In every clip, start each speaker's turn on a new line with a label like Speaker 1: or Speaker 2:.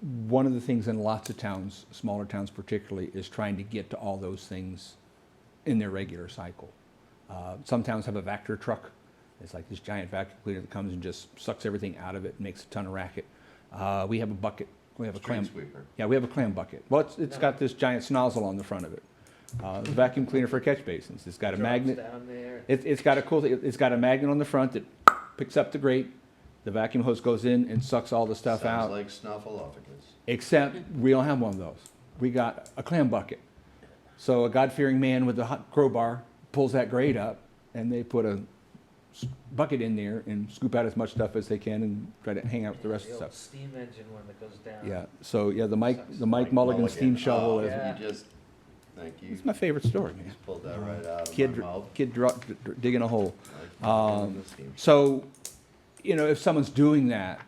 Speaker 1: one of the things in lots of towns, smaller towns particularly, is trying to get to all those things in their regular cycle. Uh, some towns have a vector truck. It's like this giant vacuum cleaner that comes and just sucks everything out of it, makes a ton of racket. Uh, we have a bucket. We have a
Speaker 2: Street
Speaker 1: clam.
Speaker 2: sweeper.
Speaker 1: Yeah, we have a clam bucket. Well, it's, it's got this giant snozzle on the front of it. Uh, it's a vacuum cleaner for catch basins. It's got a magnet.
Speaker 3: Down there.
Speaker 1: It, it's got a cool, it- it's got a magnet on the front that picks up the grate. The vacuum hose goes in and sucks all the stuff
Speaker 2: Sounds
Speaker 1: out.
Speaker 2: like snuffleupagus.
Speaker 1: Except we don't have one of those. We got a clam bucket. So a God-fearing man with a hot crowbar pulls that grate up, and they put a s- bucket in there and scoop out as much stuff as they can and try to hang out with the rest of the stuff.
Speaker 3: old Steam engine one that goes down.
Speaker 1: Yeah. So yeah, the Mike
Speaker 3: Sucks.
Speaker 1: the Mike, Mulligan, steam
Speaker 2: Oh,
Speaker 1: shovel is
Speaker 3: yeah.
Speaker 2: You just, thank you.
Speaker 1: it's my favorite story, man.
Speaker 2: Just pulled that right out of my
Speaker 1: Kid
Speaker 2: mouth.
Speaker 1: kid dro- d- d- digging a hole.
Speaker 2: Like,
Speaker 1: um,
Speaker 2: the steam-
Speaker 1: So, you know, if someone's doing that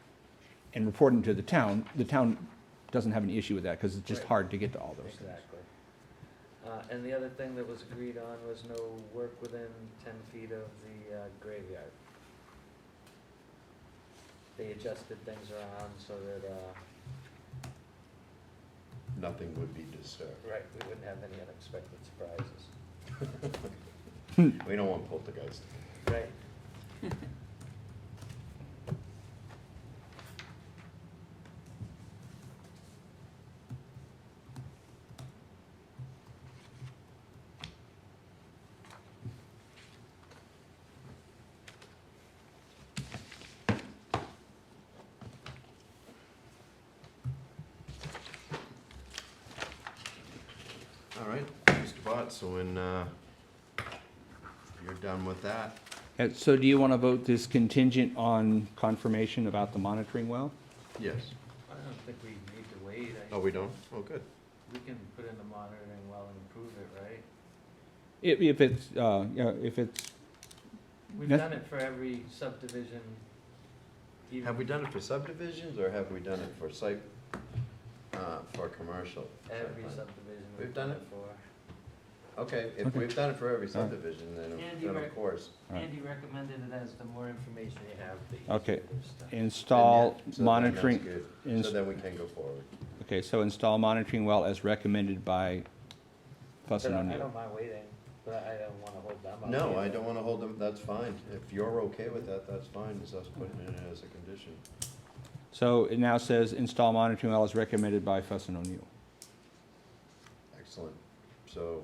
Speaker 1: and reporting to the town, the town doesn't have an issue with that because it's just
Speaker 3: Right.
Speaker 1: hard to get to all those things.
Speaker 3: Exactly. Uh, and the other thing that was agreed on was no work within ten feet of the uh, graveyard. They adjusted things around so that, uh,
Speaker 2: Nothing would be disturbed.
Speaker 3: right, we wouldn't have any unexpected surprises.
Speaker 2: We don't want poltergeist.
Speaker 3: Right.
Speaker 2: All right, Mr. Bott, so when, uh, you're done with that,
Speaker 1: Uh, So do you want to vote this contingent on confirmation about the monitoring well?
Speaker 2: yes.
Speaker 3: I don't think we need to wait.
Speaker 2: Oh, we don't? Oh, good.
Speaker 3: We can put in the monitoring well and improve it, right?
Speaker 1: If, if it's, uh, you know, if it's,
Speaker 3: We've
Speaker 1: Yes.
Speaker 3: done it for every subdivision. even-
Speaker 2: Have we done it for subdivisions or have we done it for site, uh, for commercial? site
Speaker 3: Every
Speaker 2: plan?
Speaker 3: subdivision
Speaker 2: We've
Speaker 3: we've
Speaker 2: done
Speaker 3: done
Speaker 2: it.
Speaker 3: it for.
Speaker 2: Okay, if
Speaker 1: Okay.
Speaker 2: we've done it for every
Speaker 1: All right.
Speaker 2: subdivision, then,
Speaker 3: Andy,
Speaker 2: then
Speaker 3: we're-
Speaker 2: of course.
Speaker 1: Right.
Speaker 3: Andy recommended it as the more information you uh, have, the
Speaker 1: Okay.
Speaker 3: easier it is to-
Speaker 2: then
Speaker 1: install
Speaker 2: yeah, so then that's
Speaker 1: monitoring,
Speaker 2: good. So
Speaker 1: ins-
Speaker 2: then we can go forward.
Speaker 1: okay, so install monitoring well as recommended by Fuss
Speaker 3: But
Speaker 1: and
Speaker 3: I I
Speaker 1: O'Neill.
Speaker 3: don't mind waiting, but I don't wanna hold them up.
Speaker 2: No, I
Speaker 3: either.
Speaker 2: don't wanna hold them, that's fine. If you're okay with that, that's fine, is us putting it as a condition.
Speaker 1: So it now says install monitoring well as recommended by Fuss and O'Neill.
Speaker 2: Excellent. So,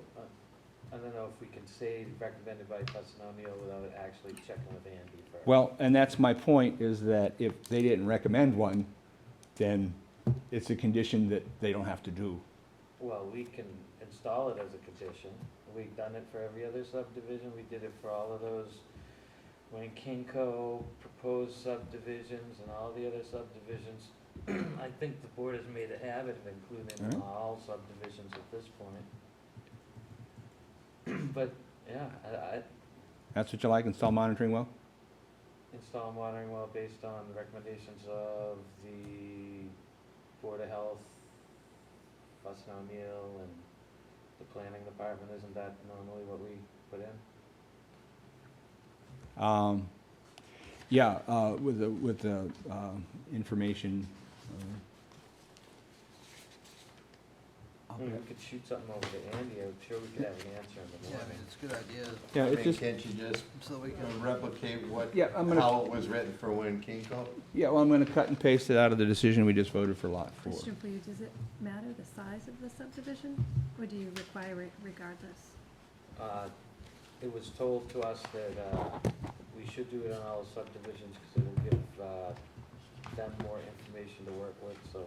Speaker 3: I don't know if we can say recommended by Preston O'Neill without actually checking with Andy first.
Speaker 1: Well, and that's my point, is that if they didn't recommend one, then it's a condition that they don't have to do.
Speaker 3: Well, we can install it as a condition. We've done it for every other subdivision. We did it for all of those Wayne Kinco proposed subdivisions and all the other subdivisions. I think the board has made a habit of including
Speaker 1: Alright.
Speaker 3: all subdivisions at this point. But, yeah, I, I
Speaker 1: That's what you like, install monitoring well?
Speaker 3: install a monitoring well based on the recommendations of the Board of Health, Boston O'Neill, and the planning department, isn't that normally what we put in?
Speaker 1: Um, Yeah, uh, with the, with the um, information. uh,
Speaker 3: I mean, Hmm, we could shoot something over to Andy, I'm sure we could have an answer in the
Speaker 4: Yeah, I mean,
Speaker 3: morning.
Speaker 4: it's a good idea,
Speaker 1: Yeah,
Speaker 2: I
Speaker 1: it
Speaker 2: mean,
Speaker 1: just,
Speaker 2: can't you just
Speaker 4: so we
Speaker 2: you
Speaker 4: can,
Speaker 2: know, replicate what,
Speaker 1: yeah, I'm gonna,
Speaker 2: how it was written for Wayne Kinko?
Speaker 1: yeah, well, I'm gonna cut and paste it out of the decision we just voted for lot four.
Speaker 5: Question for you, does it matter the size of the subdivision, or do you require it regardless?
Speaker 3: Uh, it was told to us that, uh, we should do it on all subdivisions, cause it'll give, uh, them more information to work with, so.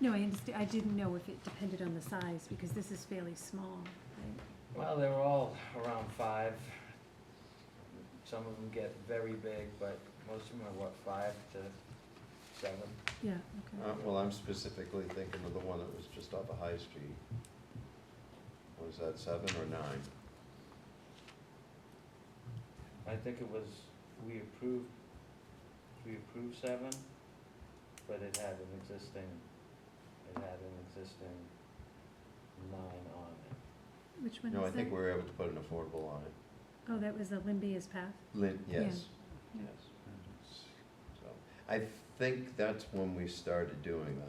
Speaker 5: No, I understand, I didn't know if it depended on the size, because this is fairly small, right?
Speaker 3: Well, they were all around five. Some of them get very big, but most of them are what, five to seven?
Speaker 5: Yeah,
Speaker 2: Uh,
Speaker 5: okay.
Speaker 2: well, I'm specifically thinking of the one that was just off of High Street. Was that seven or nine?
Speaker 3: I think it was, we approved, we approved seven, but it had an existing, it had an existing nine on it.
Speaker 5: Which one
Speaker 2: No, I
Speaker 5: was that?
Speaker 2: think we were able to put an affordable on it.
Speaker 5: Oh, that was the Limbia's Path?
Speaker 2: Lin,
Speaker 5: Yeah.
Speaker 2: yes, yes. So, I think that's when we started doing that.